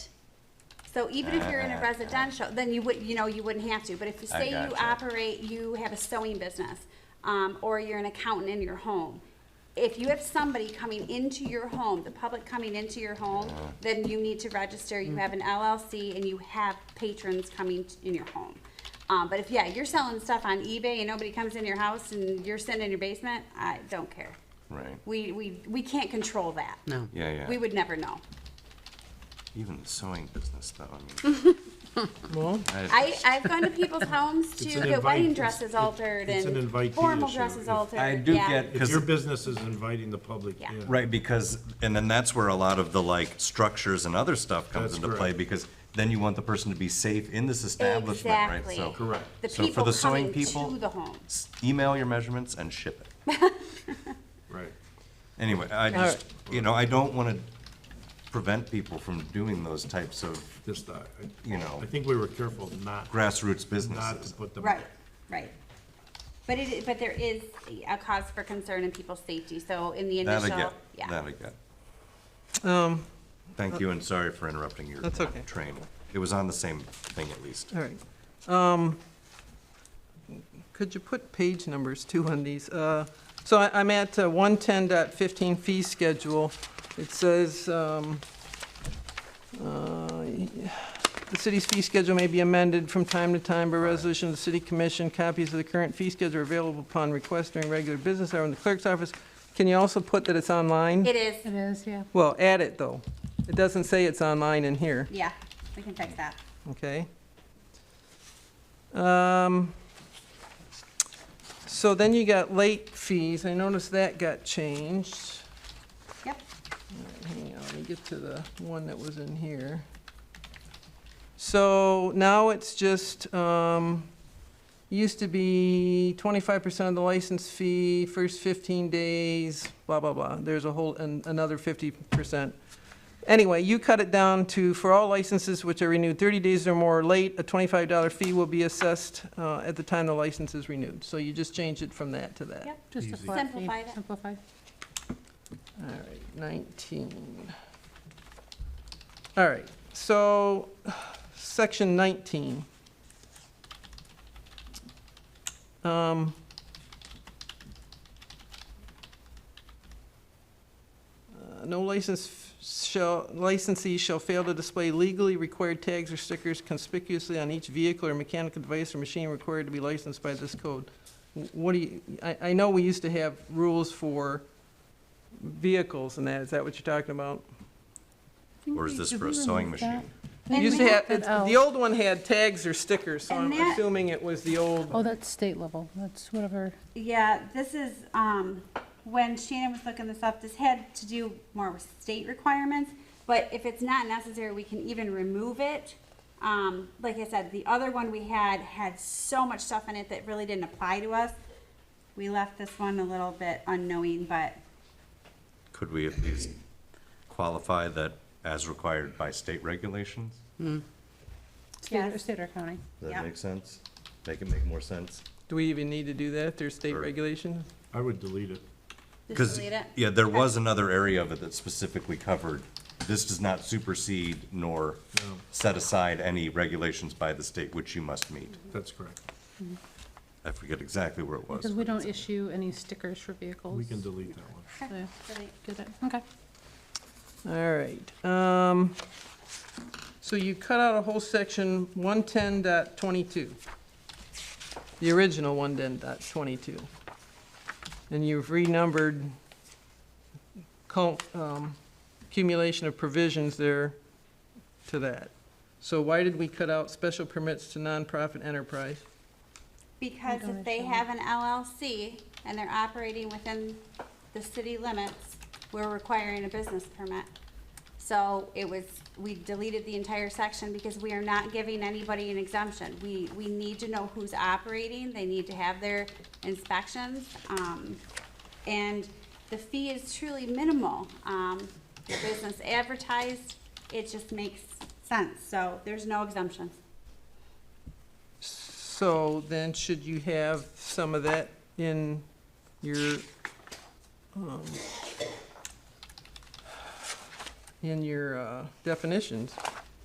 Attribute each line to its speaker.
Speaker 1: So even if you're in a residential, then you would, you know, you wouldn't have to, but if you
Speaker 2: Uh-huh. I
Speaker 1: say you
Speaker 2: gotcha.
Speaker 1: operate, you have a sewing business, um, or you're an accountant in your home, if you have somebody coming into your home, the public coming into your home,
Speaker 2: Uh-huh.
Speaker 1: then you need to register, you have an LLC, and you have patrons coming t- in your home. Um, but if, yeah, you're selling stuff on eBay and nobody comes in your house and you're sitting in your basement, I don't care.
Speaker 2: Right.
Speaker 1: We, we, we can't control that.
Speaker 3: No.
Speaker 2: Yeah, yeah.
Speaker 1: We would never know.
Speaker 2: Even the sewing business, though. I mean,
Speaker 4: Well,
Speaker 1: I, I've gone to people's homes to
Speaker 4: It's an
Speaker 1: get wedding
Speaker 4: invite-
Speaker 1: dresses
Speaker 4: it's-
Speaker 1: altered
Speaker 4: it's an
Speaker 1: and
Speaker 4: invitee
Speaker 1: formal
Speaker 4: issue.
Speaker 1: dresses
Speaker 4: If-
Speaker 1: altered.
Speaker 2: I do
Speaker 1: yeah.
Speaker 2: get
Speaker 4: if your
Speaker 2: because
Speaker 4: business is inviting the public
Speaker 1: Yeah.
Speaker 4: in.
Speaker 2: right because and then that's where a lot of the like structures and other stuff comes
Speaker 4: That's
Speaker 2: into
Speaker 4: correct.
Speaker 2: play because then you want the person to be safe in this establishment,
Speaker 1: Exactly.
Speaker 2: right? So
Speaker 4: Correct.
Speaker 1: The
Speaker 2: So for
Speaker 1: people
Speaker 2: the sewing
Speaker 1: coming
Speaker 2: people-
Speaker 1: to the home.
Speaker 2: s- email your measurements and ship it.
Speaker 4: Right.
Speaker 2: Anyway, I just, you know, I don't want to prevent people from doing those types of
Speaker 4: Just, I, I-
Speaker 2: You know.
Speaker 4: I think we were careful not,
Speaker 2: grassroots
Speaker 4: not to
Speaker 2: businesses.
Speaker 4: put them.
Speaker 1: Right, right. But it, i- but there is a cause for concern in people's safety, so in the
Speaker 2: That again,
Speaker 1: initial, yeah.
Speaker 2: that again.
Speaker 5: Um,
Speaker 2: Thank you and sorry for interrupting your
Speaker 5: That's okay.
Speaker 2: train. It was on the same thing at least.
Speaker 5: all right. Um, could you put page numbers too on these? Uh, so I, I'm at uh, one ten dot fifteen fee schedule. It says, um, uh, the city's fee schedule may be amended from time to time by resolution of the city commission. Copies of the current fee schedule are available upon request during regular business hour in the clerk's office. Can you also put that it's online?
Speaker 1: It is,
Speaker 6: It is, yeah.
Speaker 5: Well, add it though. It doesn't say it's online in here.
Speaker 1: yeah, we can fix that.
Speaker 5: Okay. Um, So then you got late fees, I noticed that got changed.
Speaker 1: Yep,
Speaker 5: Hang on, let me get to the one that was in here. So now it's just, um, used to be twenty-five percent of the license fee, first fifteen days, blah, blah, blah. There's a whole, an another fifty percent. Anyway, you cut it down to, for all licenses which are renewed thirty days or more late, a twenty-five dollar fee will be assessed, uh, at the time the license is renewed. So you just change it from that to that.
Speaker 1: yep.
Speaker 6: Just a
Speaker 4: Easy.
Speaker 6: flat fee.
Speaker 1: Simplified it.
Speaker 6: Simplified.
Speaker 5: All right, 19. All right, so, section 19. Um, uh, No license f- shall, licensee shall fail to display legally required tags or stickers conspicuously on each vehicle or mechanical device or machine required to be licensed by this code. Wh- What do you, I, I know we used to have rules for vehicles and that, is that what you're talking about?
Speaker 2: Or is this for a sewing machine?
Speaker 5: You used to
Speaker 1: we-
Speaker 5: have,
Speaker 6: that
Speaker 5: it's- the
Speaker 6: out.
Speaker 5: old one had tags or stickers, so I'm
Speaker 1: And that-
Speaker 5: assuming it was the old.
Speaker 6: Oh, that's state level. That's whatever.
Speaker 1: Yeah, this is, um, when Shannon was looking this up, this had to do more with state requirements, but if it's not necessary, we can even remove it. Um, like I said, the other one we had had so much stuff in it that really didn't apply to us. We left this one a little bit unknowing, but
Speaker 2: Could we at least qualify that as required by state regulations?
Speaker 1: Yes.
Speaker 6: State or- State or county.
Speaker 2: Does
Speaker 1: Yeah.
Speaker 2: that make sense? Make it make more sense?
Speaker 5: Do we even need to do that if there's state
Speaker 2: Sure.
Speaker 5: regulations?
Speaker 4: I would delete it.
Speaker 1: just
Speaker 2: Because,
Speaker 1: delete it.
Speaker 2: yeah, there was another area of it that specifically covered, this does not supersede nor
Speaker 4: No.
Speaker 2: set aside any regulations by the state which you must meet.
Speaker 4: That's correct.
Speaker 2: I forget exactly where it was.
Speaker 6: Because we don't issue any stickers for vehicles.
Speaker 4: We can delete that one.
Speaker 6: Yeah,
Speaker 1: Delete.
Speaker 6: Did it, okay.
Speaker 5: All right, um, so you cut out a whole section, 110.22, The original 110.22, And you've renumbered cul- um, accumulation of provisions there to that. So why did we cut out special permits to nonprofit enterprise?
Speaker 1: Because if they have an LLC and they're operating within the city limits, we're requiring a business permit. So it was, we deleted the entire section because we are not giving anybody an exemption. We, we need to know who's operating, they need to have their inspections. Um, and the fee is truly minimal. Um, the business advertised, it just makes sense, so there's no exemptions.
Speaker 5: So then should you have some of that in your, um, in your uh, definitions?